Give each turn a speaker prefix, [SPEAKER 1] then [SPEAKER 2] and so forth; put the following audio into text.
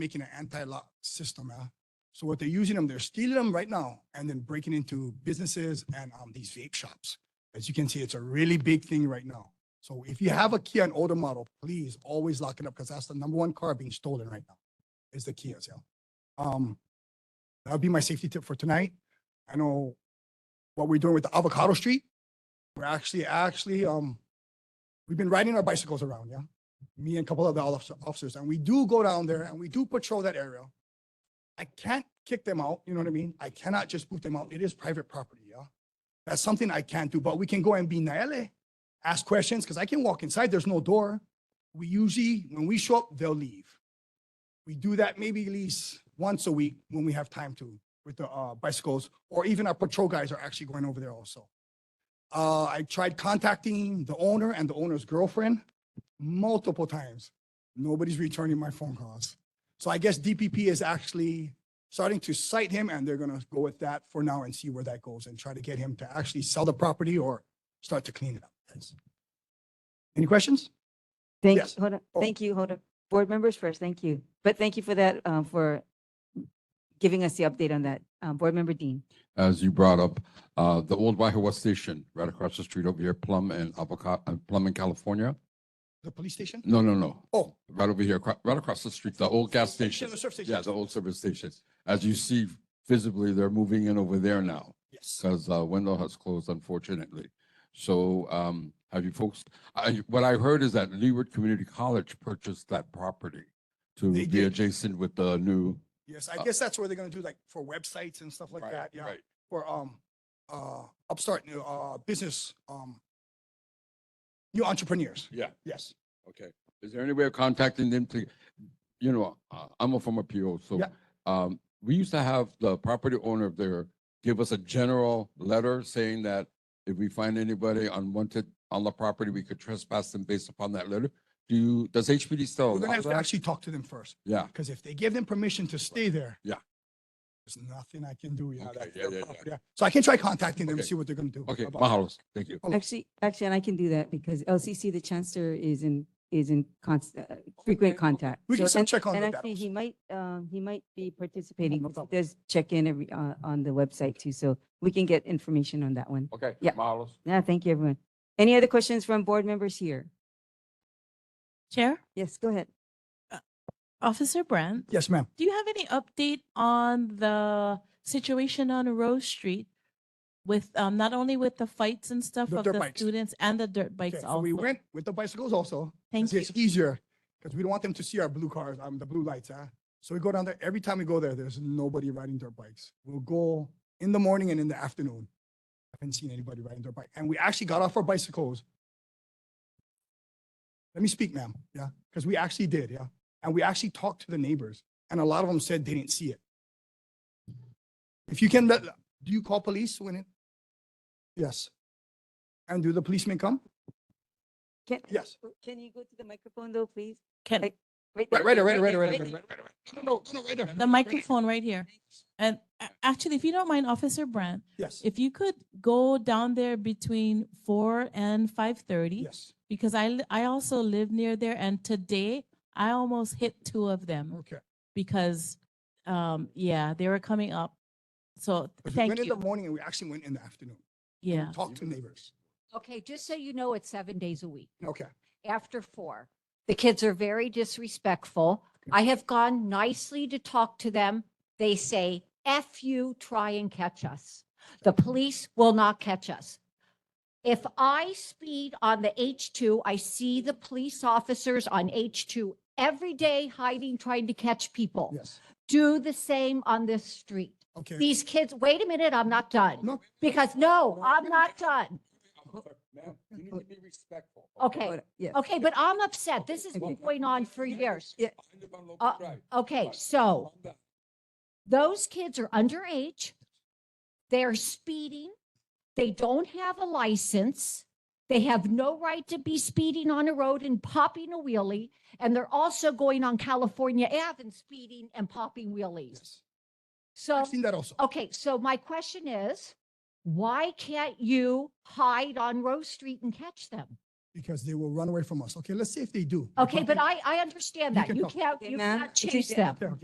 [SPEAKER 1] making an anti-lock system. uh. So what they're using them, they're stealing them right now and then breaking into businesses and um, these vape shops. As you can see, it's a really big thing right now. So if you have a Kia, an older model, please always lock it up because that's the number one car being stolen right now is the Kias. Yeah. Um, that'll be my safety tip for tonight. I know what we're doing with the avocado street. We're actually, actually, um, we've been riding our bicycles around. Yeah me and a couple of the officer- officers, and we do go down there and we do patrol that area. I can't kick them out, you know what I mean? I cannot just boot them out. It is private property, yeah? That's something I can't do, but we can go and be naele, ask questions, because I can walk inside, there's no door. We usually, when we show up, they'll leave. We do that maybe at least once a week when we have time to with the uh, bicycles, or even our patrol guys are actually going over there also. Uh, I tried contacting the owner and the owner's girlfriend multiple times. Nobody's returning my phone calls. So I guess DPP is actually starting to cite him and they're going to go with that for now and see where that goes and try to get him to actually sell the property or start to clean it up. Thanks. Any questions?
[SPEAKER 2] Thank, you.
[SPEAKER 1] Yes.
[SPEAKER 2] hold on,
[SPEAKER 1] Oh.
[SPEAKER 2] thank you, hold on. Board members first, thank you. But thank you for that, um, for giving us the update on that. Um, Board Member Dean.
[SPEAKER 3] as you brought up, uh, the old Waihewa Station, right across the street over here, Plum and Avocado, uh, Plum in California.
[SPEAKER 1] The police station?
[SPEAKER 3] No, no, no,
[SPEAKER 1] Oh.
[SPEAKER 3] right over here, acro- right across the street, the old gas station.
[SPEAKER 1] The surf station.
[SPEAKER 3] Yeah, the old service station. As you see visibly, they're moving in over there now
[SPEAKER 1] Yes.
[SPEAKER 3] because uh, window has closed unfortunately. So um, have you folks, I, what I heard is that Leeward Community College purchased that property to
[SPEAKER 1] They
[SPEAKER 3] be
[SPEAKER 1] did.
[SPEAKER 3] adjacent with the new.
[SPEAKER 1] Yes. I
[SPEAKER 3] Uh,
[SPEAKER 1] guess that's where they're going to do like for websites and stuff like
[SPEAKER 3] Right,
[SPEAKER 1] that. Yeah.
[SPEAKER 3] right.
[SPEAKER 1] For, um, uh, upstart, new, uh, business, um, new entrepreneurs.
[SPEAKER 3] Yeah.
[SPEAKER 1] Yes.
[SPEAKER 3] Okay, is there any way of contacting them to, you know, uh, I'm a former PO, so.
[SPEAKER 1] Yeah.
[SPEAKER 3] Um, we used to have the property owner there give us a general letter saying that if we find anybody unwanted on the property, we could trespass them based upon that letter. Do you, does HPD still
[SPEAKER 1] We're going to
[SPEAKER 3] allow
[SPEAKER 1] have to
[SPEAKER 3] that?
[SPEAKER 1] actually talk to them first.
[SPEAKER 3] Yeah,
[SPEAKER 1] Because if they give them permission to stay there.
[SPEAKER 3] Yeah.
[SPEAKER 1] There's nothing I can do, you know,
[SPEAKER 3] Okay,
[SPEAKER 1] that's
[SPEAKER 3] yeah,
[SPEAKER 1] their
[SPEAKER 3] yeah,
[SPEAKER 1] property, yeah. So I can try contacting them,
[SPEAKER 3] Okay.
[SPEAKER 1] see what they're gonna do.
[SPEAKER 3] okay,
[SPEAKER 1] about it.
[SPEAKER 3] mahalos, thank you.
[SPEAKER 1] Oh.
[SPEAKER 2] Actually, actually, and I can do that because LCC, the chancellor is in, is in constant, frequent contact.
[SPEAKER 1] We can
[SPEAKER 2] So-
[SPEAKER 1] still check on
[SPEAKER 2] And
[SPEAKER 1] that.
[SPEAKER 2] actually, he might, um, he might be participating.
[SPEAKER 1] No
[SPEAKER 2] He
[SPEAKER 1] problem.
[SPEAKER 2] does check in every, uh, on the website too, so we can get information on that one.
[SPEAKER 1] Oh.
[SPEAKER 3] Okay.
[SPEAKER 2] Yeah.
[SPEAKER 3] Mahalos.
[SPEAKER 2] Yeah, thank you, everyone. Any other questions from board members here?
[SPEAKER 4] Chair,
[SPEAKER 2] Yes, go ahead.
[SPEAKER 4] Officer Brandt,
[SPEAKER 1] Yes, ma'am.
[SPEAKER 4] do you have any update on the situation on Rose Street? With, um, not only with the fights and stuff
[SPEAKER 1] The
[SPEAKER 4] of
[SPEAKER 1] dirt
[SPEAKER 4] the
[SPEAKER 1] bikes.
[SPEAKER 4] students and the dirt
[SPEAKER 1] Okay,
[SPEAKER 4] bikes
[SPEAKER 1] so we
[SPEAKER 4] also.
[SPEAKER 1] went with the bicycles also. 'cause
[SPEAKER 4] Thank you.
[SPEAKER 1] It's easier, because we don't want them to see our blue cars, um, the blue lights, huh? So we go down there, every time we go there, there's nobody riding their bikes. We'll go in the morning and in the afternoon. I haven't seen anybody riding their bike, and we actually got off our bicycles. Let me speak, ma'am, yeah, because we actually did, yeah, and we actually talked to the neighbors, and a lot of them said they didn't see it. If you can, let, do you call police when it? Yes. And do the policemen come?
[SPEAKER 2] Can,
[SPEAKER 1] Yes.
[SPEAKER 2] can you go to the microphone though, please?
[SPEAKER 4] Can,
[SPEAKER 2] Like, Right,
[SPEAKER 3] Right,
[SPEAKER 2] there,
[SPEAKER 3] right, there, right, there, right, there, right,
[SPEAKER 2] there,
[SPEAKER 3] there, right, there, right. No, no, no, right there.
[SPEAKER 4] the microphone right here. And a- actually, if you don't mind, Officer Brandt,
[SPEAKER 1] Yes,
[SPEAKER 4] if you could go down there between four and five thirty.
[SPEAKER 1] yes,
[SPEAKER 4] Because I, li- I also live near there and today I almost hit two of them.
[SPEAKER 1] okay.
[SPEAKER 4] because um yeah they were coming up so
[SPEAKER 1] But we
[SPEAKER 4] thank
[SPEAKER 1] went in the
[SPEAKER 4] you
[SPEAKER 1] morning and we actually went in the afternoon. and we
[SPEAKER 4] yeah
[SPEAKER 1] Talked to neighbors.
[SPEAKER 5] Okay, just so you know, it's seven days a week
[SPEAKER 1] Okay,
[SPEAKER 5] after four. The kids are very disrespectful. I have gone nicely to talk to them. They say, F you, try and catch us. The police will not catch us. If I speed on the H2, I see the police officers on H2 every day hiding, trying to catch people.
[SPEAKER 1] yes,
[SPEAKER 5] Do the same on this street.
[SPEAKER 1] okay.
[SPEAKER 5] These kids, wait a minute, I'm not done.
[SPEAKER 1] No,
[SPEAKER 5] Because no, I'm not done.
[SPEAKER 3] Ma'am, you need to be respectful.
[SPEAKER 5] Okay.
[SPEAKER 2] Hold on, Yes.
[SPEAKER 5] Okay, but I'm upset. This has
[SPEAKER 2] Okay.
[SPEAKER 5] been going on for years.
[SPEAKER 3] I live on
[SPEAKER 5] Uh,
[SPEAKER 3] local drive.
[SPEAKER 5] Okay,
[SPEAKER 3] Right.
[SPEAKER 5] so
[SPEAKER 3] Calm down.
[SPEAKER 5] those kids are underage. They're speeding. They don't have a license. They have no right to be speeding on a road and popping a wheelie. And they're also going on California Ave and speeding and popping wheelies.
[SPEAKER 1] yes.
[SPEAKER 5] So,
[SPEAKER 1] I've seen that also.
[SPEAKER 5] okay, so my question is, why can't you hide on Rose Street and catch them?
[SPEAKER 1] because they will run away from us. Okay, let's see if they do.
[SPEAKER 5] Okay, but I, I understand
[SPEAKER 1] You
[SPEAKER 5] that.
[SPEAKER 1] can
[SPEAKER 5] You
[SPEAKER 1] talk.
[SPEAKER 5] can't,
[SPEAKER 2] Okay,
[SPEAKER 5] you
[SPEAKER 2] ma'am,
[SPEAKER 5] can't
[SPEAKER 2] it
[SPEAKER 5] chase
[SPEAKER 2] is-
[SPEAKER 5] them.
[SPEAKER 1] Yeah,